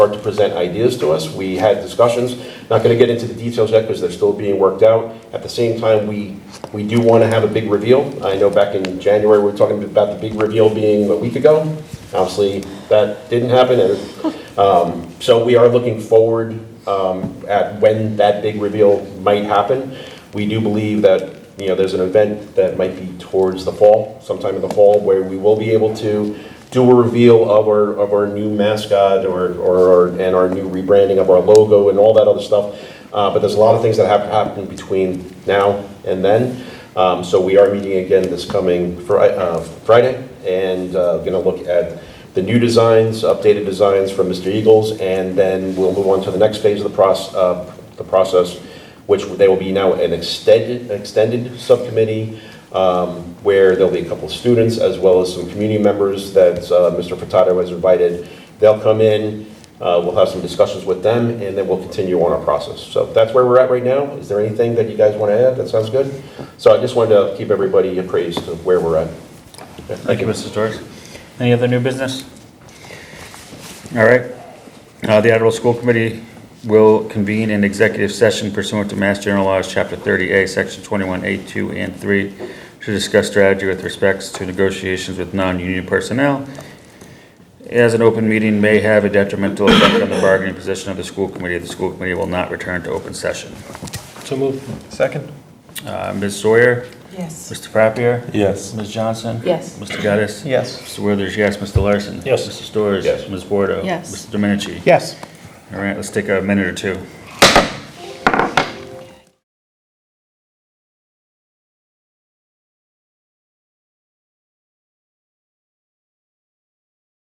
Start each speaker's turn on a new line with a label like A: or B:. A: start to present ideas to us. We had discussions, not going to get into the details yet because they're still being worked out. At the same time, we, we do want to have a big reveal. I know back in January, we were talking about the big reveal being a week ago. Obviously, that didn't happen. and, um, So we are looking forward um, at when that big reveal might happen. We do believe that, you know, there's an event that might be towards the fall, sometime in the fall, where we will be able to do a reveal of our, of our new mascot or, or, and our new rebranding of our logo and all that other stuff. Uh, But there's a lot of things that have happened between now and then. Um, So we are meeting again this coming Fri- uh, Friday and going to look at the new designs, updated designs from Mr. Eagles, and then we'll move on to the next phase of the process, the process, which they will be now an extended, extended subcommittee, um, where there'll be a couple of students as well as some community members that uh, Mr. Furtado has invited. They'll come in, uh, we'll have some discussions with them, and then we'll continue on our process. So that's where we're at right now. Is there anything that you guys want to add? That sounds good. So I just wanted to keep everybody appraised of where we're at.
B: Thank you, Mrs. Torres. Any other new business? All right. Uh, The Attleboro School Committee will convene an executive session pursuant to Mass General Laws, Chapter 30A, Section 21A, 2 and 3, to discuss strategy with respects to negotiations with non-union personnel. As an open meeting may have a detrimental effect on the bargaining position of the school committee, the school committee will not return to open session.
C: So moved. Second?
B: Uh, Ms. Sawyer?
D: Yes.
B: Mr. Frappier?
C: Yes.
B: Ms. Johnson?
D: Yes.
B: Mr. Gaddis?
C: Yes.
B: Mr. Withers, yes. Mr. Larson?
C: Yes.
B: Mr. Storrs?
A: Yes.
B: Ms. Bordeaux?
D: Yes.
B: Mr. Domenici?
C: Yes.
B: All right, let's take a minute or two.